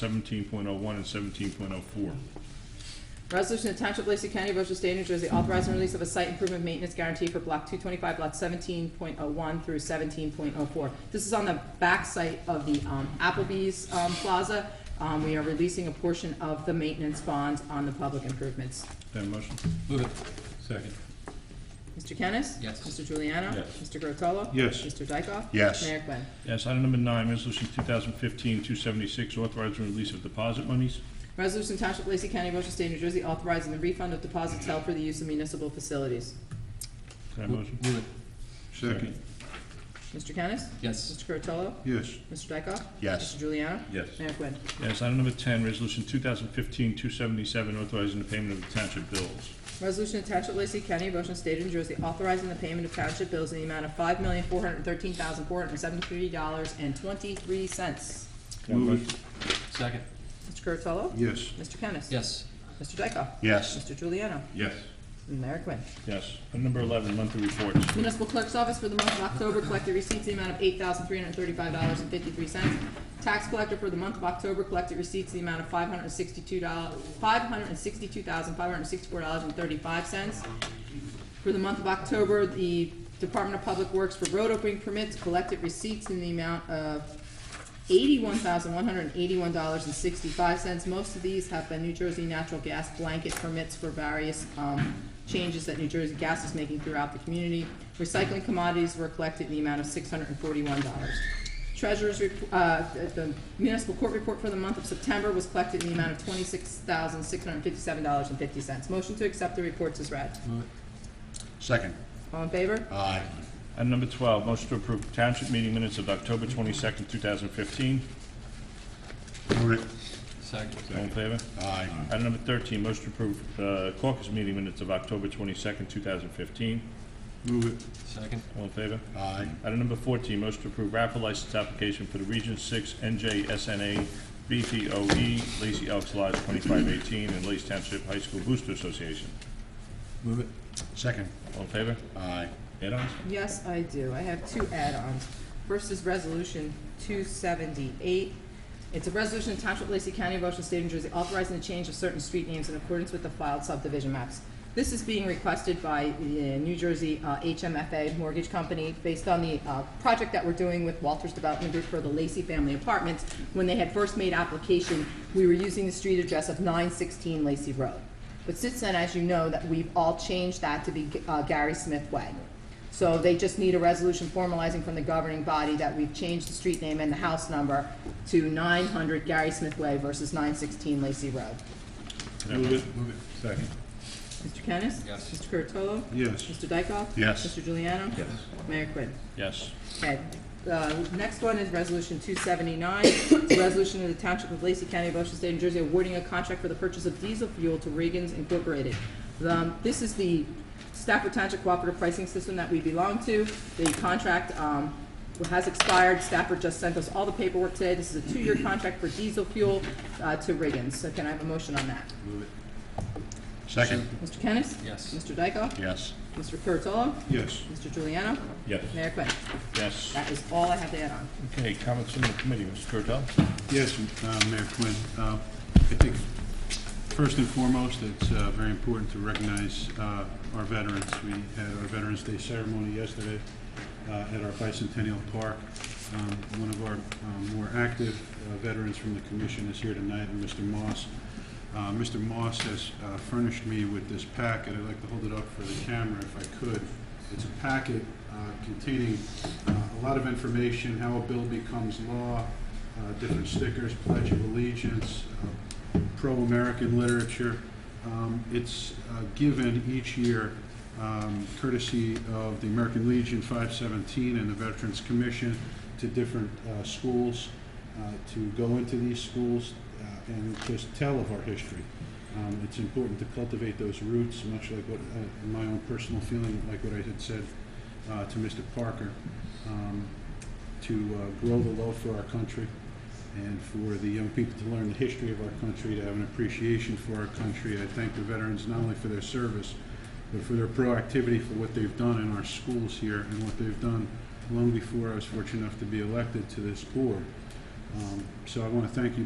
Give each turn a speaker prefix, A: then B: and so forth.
A: seventeen point oh one and seventeen point oh four.
B: Resolution to Township of Lacey County, Ocean State, New Jersey, authorizing release of a site improvement maintenance guarantee for block two twenty-five, block seventeen point oh one through seventeen point oh four. This is on the back site of the um, Applebee's um, Plaza. Um, We are releasing a portion of the maintenance bonds on the public improvements.
A: Have a motion?
C: Move it.
A: Second.
B: Mr. Kennis?
C: Yes.
B: Mr. Juliano?
A: Yes.
B: Mr. Curatolo?
A: Yes.
B: Mr. Dykoff?
D: Yes.
B: Mayor Quinn.
A: Yes, item number nine, resolution 2015-276, authorizing release of deposit monies.
B: Resolution to Township of Lacey County, Ocean State, New Jersey, authorizing the refund of deposits held for the use of municipal facilities.
A: Can I have a
C: Move
A: motion?
C: it.
D: Second.
B: Mr. Kennis?
C: Yes.
B: Mr. Curatolo?
D: Yes.
B: Mr. Dykoff?
D: Yes.
B: Mr. Juliano?
A: Yes.
B: Mayor Quinn.
A: Yes, item number ten, resolution 2015-277, authorizing the payment of the township bills.
B: Resolution to Township of Lacey County, Ocean State of New Jersey, authorizing the payment of township bills in the amount of five million, four hundred and thirteen thousand, four hundred and seventy-three dollars and twenty-three cents.
A: Can I have a
D: Move
A: motion?
C: Second.
B: Mr. Curatolo?
D: Yes.
B: Mr. Kennis?
C: Yes.
B: Mr. Dykoff?
D: Yes.
B: Mr. Juliano?
A: Yes.
B: And Mayor Quinn.
A: Yes, item number eleven, monthly reports.
B: Municipal Clerk's Office for the month of October collected receipts in the amount of eight thousand three hundred thirty-five dollars and fifty-three cents. Tax collector for the month of October collected receipts in the amount of five hundred sixty-two dollars, five hundred sixty-two thousand five hundred sixty-four dollars and thirty-five cents. For the month of October, the Department of Public Works for road opening permits collected receipts in the amount of eighty-one thousand one hundred eighty-one dollars and sixty-five cents. Most of these have been New Jersey natural gas blanket permits for various, um, changes that New Jersey Gas is making throughout the community. Recycling commodities were collected in the amount of six hundred and forty-one dollars. Treasurer's, rep- uh, the municipal court report for the month of September was collected in the amount of twenty-six thousand six hundred fifty-seven dollars and fifty cents. Motion to accept the reports is read.
C: Move it.
D: Second.
B: All in favor?
D: Aye.
A: Item number twelve, motion to approve township meeting minutes of October twenty-second, two thousand fifteen.
D: Move it.
C: Second.
A: All in favor?
D: Aye.
A: Item number thirteen, motion to approve uh, caucus meeting minutes of October twenty-second, two thousand fifteen.
D: Move it.
C: Second.
A: All in favor?
D: Aye.
A: Item number fourteen, motion to approve raffle license application for the Region Six NJSNA BPOE E, Lacey Elks Lodge twenty-five eighteen and Lacey Township High School Booster Association.
C: Move it.
D: Second.
A: All in favor?
D: Aye.
A: Add-ons?
B: Yes, I do. I have two add-ons. First is Resolution 278. It's a resolution of Township of Lacey County, Ocean State, New Jersey, authorizing the change of certain street names in accordance with the filed subdivision maps. This is being requested by the New Jersey uh, HMFA Mortgage Company based on the uh, project that we're doing with Walters Development Group for the Lacey Family Apartments. When they had first made application, we were using the street address of 916 Lacey Road. But since then, as you know, that we've all changed that to be uh, Gary Smith Way. So they just need a resolution formalizing from the governing body that we've changed the street name and the house number to 900 Gary Smith Way versus 916 Lacey Road.
A: Move it.
C: Move it.
A: Second.
B: Mr. Kennis?
C: Yes.
B: Mr. Curatolo?
D: Yes.
B: Mr. Dykoff?
D: Yes.
B: Mr. Juliano? Yes. Mayor Quinn?
A: Yes.
B: Okay, the next one is Resolution 279. It's a resolution of the Township of Lacey County, Ocean State, New Jersey, awarding a contract for the purchase of diesel fuel to Reagan's Incorporated. Um, This is the Stafford Township Cooperative Pricing System that we belong to. The contract um, has expired. Stafford just sent us all the paperwork today. This is a two-year contract for diesel fuel uh, to Reagan's. So can I have a motion on that?
C: Move it.
D: Second.
B: Mr. Kennis?
C: Yes.
B: Mr. Dykoff?
D: Yes.
B: Mr. Curatolo?
D: Yes.
B: Mr. Juliano?
A: Yes.
B: Mayor Quinn?
A: Yes.
B: That is all I have to add on.
A: Okay, comments from the committee, Mr. Curatolo?
D: Yes, uh, Mayor Quinn. Uh, I think first and foremost, it's uh, very important to recognize uh, our veterans. We had our Veterans Day ceremony yesterday uh, at our Bicentennial Park. Um, One of our um, more active uh, veterans from the commission is here tonight, and Mr. Moss. Uh, Mr. Moss has uh, furnished me with this packet. I'd like to hold it up for the camera if I could. It's a packet uh, containing uh, a lot of information, how a bill becomes law, uh, different stickers, Pledge of Allegiance, uh, pro-American literature. Um, It's uh, given each year um, courtesy of the American Legion 517 and the Veterans Commission to different uh, schools, uh, to go into these schools uh, and just tell of our history. Um, It's important to cultivate those roots, much like what, uh, in my own personal feeling, like what I had said uh, to Mr. Parker. Um, to uh, grow the love for our country and for the young people to learn the history of our country, to have an appreciation for our country. I thank the veterans not only for their service, but for their proactivity for what they've done in our schools here and what they've done long before I was fortunate enough to be elected to this board. Um, So I want to thank you